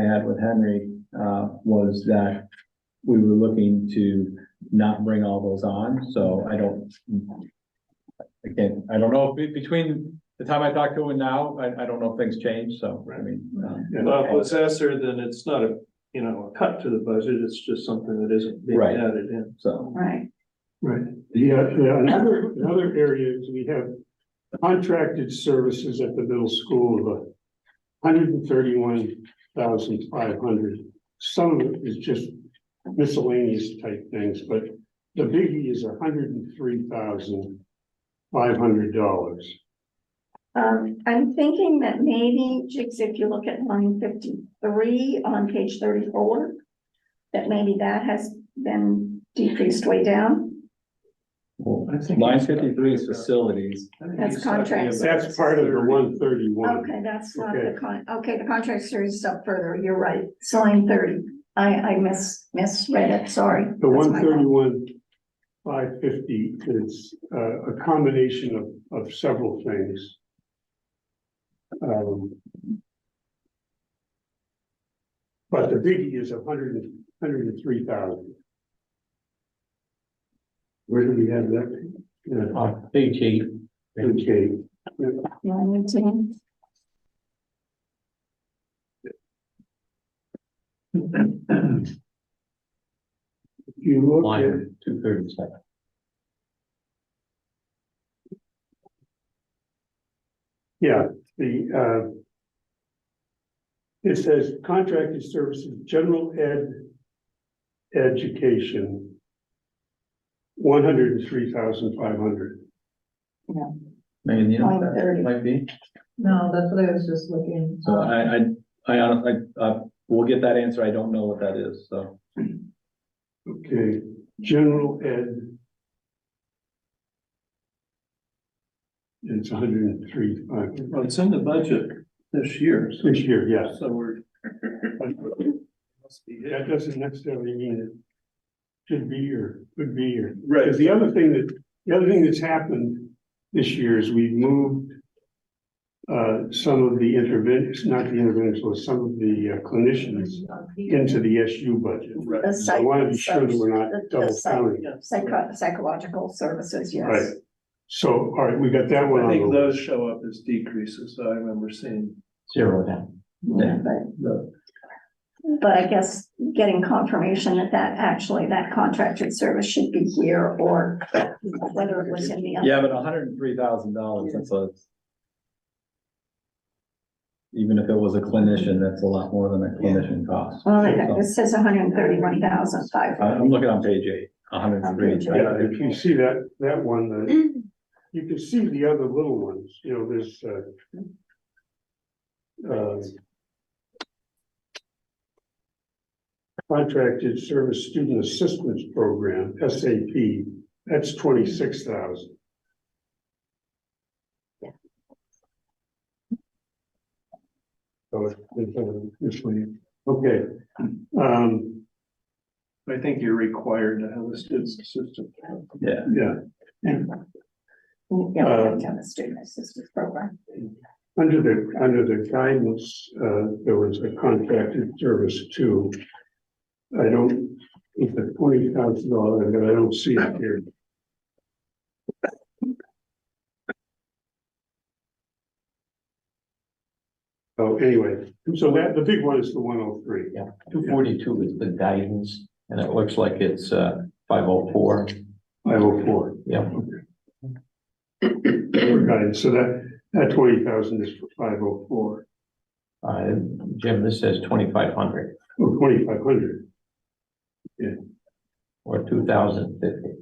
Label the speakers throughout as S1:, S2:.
S1: had with Henry, uh, was that we were looking to not bring all those on, so I don't. Again, I don't know, be- between the time I talked to him and now, I, I don't know if things changed, so, I mean. um,
S2: Well, if it's Esser, then it's not a, you know, a cut to the budget, it's just something that isn't being
S1: Right.
S2: added in.
S1: So,
S3: Right,
S4: Right, yeah, yeah, another, another area is we have contracted services at the middle school of hundred and thirty-one thousand five hundred. Some of it is just miscellaneous type things, but the biggie is hundred and three thousand five hundred dollars.
S3: um, I'm thinking that maybe, Jigs, if you look at line fifty-three on page thirty-four. That maybe that has been decreased way down,
S1: well,
S2: I think
S1: line
S2: he's got-
S1: fifty-three is facilities,
S2: I think
S3: That's
S2: he's talking
S3: contracts.
S2: about
S4: That's part of the one thirty-one.
S3: okay, that's not the
S4: Okay.
S3: con, okay, the contract series is up further, you're right, it's line thirty. I, I mis, misread it, sorry.
S4: The
S3: That's
S4: one
S3: my fault.
S4: thirty-one, five fifty is uh, a combination of, of several things. Um, But the biggie is a hundred and, hundred and three thousand. Where do we have that? Yeah,
S5: on Uh, page eight,
S4: Okay,
S3: Line eighteen.
S4: if you look at,
S5: line two thirty-seven.
S4: yeah, the, uh, it says contracted services, general ed education, one hundred and three thousand five hundred.
S1: Megan, you know what
S3: Line
S1: that
S3: 30.
S1: might be,
S6: No, that's what I was just looking.
S1: so I, I, I honestly, uh, we'll get that answer, I don't know what that is, so.
S4: Okay, general ed. It's a hundred and three, uh,
S2: Well, it's in the budget this year, so-
S4: this year, yes.
S2: so we're. must be
S4: That
S2: it.
S4: doesn't necessarily mean it should be or could be or.
S2: Right.
S4: Because the other thing that, the other thing that's happened this year is we've moved uh, some of the interventions, not the interventions, but some of the uh, clinicians into the SU budget.
S2: Right.
S3: The
S4: I
S3: psych-
S4: want to be sure that we're
S3: the-
S4: not
S3: the
S4: double
S3: psych-
S4: counting.
S3: Psycho, psychological services,
S4: Right.
S3: yes.
S4: So, all right, we got that one
S2: I
S4: on the
S2: think
S4: list.
S2: those show up as decreases, I remember seeing.
S5: Zero down.
S3: Yeah, But
S2: the-
S3: But I guess getting confirmation that that actually, that contracted service should be here or whether it was in the. other-
S1: Yeah, but hundred and three thousand dollars, that's a. Even if it was a clinician, that's a lot more than a clinician costs.
S3: Well, it it says hundred and thirty-one thousand five.
S1: I- I'm looking on page eight, hundred and
S3: On page
S1: three.
S3: eight.
S4: Yeah, if you see that, that one, uh, you can see the other little ones, you know, there's, uh, uh, contracted service student assistance program, SAP, that's twenty-six thousand. So it's, it's, uh, it's, really- okay, um,
S2: I think you're required to have a student assistant.
S1: Yeah,
S4: yeah.
S3: Yeah, we have to have a student assistance program.
S4: Under the, under the guidance, uh, there was a contracted service too. I don't, it's a twenty thousand dollar, but I don't see it here. Oh, anyway, so that, the big one is the one oh three.
S5: Two forty-two is the guidance, and it looks like it's, uh, five oh four.
S4: Five oh four.
S5: Yeah.
S4: so that, that twenty thousand is for five oh four,
S5: Uh, Jim, this says twenty-five hundred
S4: or twenty-five hundred.
S5: or two thousand fifty.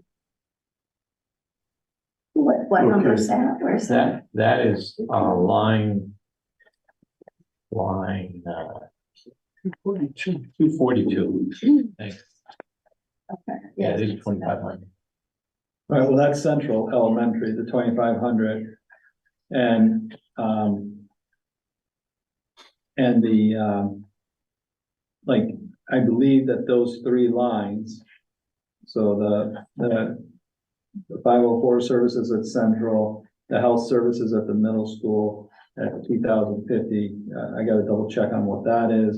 S3: What, what number
S4: Okay.
S3: is that? Where's that?
S5: That, that is, uh, line, line, uh, two forty-two. Thanks.
S3: Okay.
S5: Yeah, it is twenty-five hundred.
S1: all right, well, that's central elementary, the twenty-five hundred. And, um. And the, um. Like, I believe that those three lines. So the, the. The five oh four services at central, the health services at the middle school at two thousand fifty, uh, I gotta double check on what that is.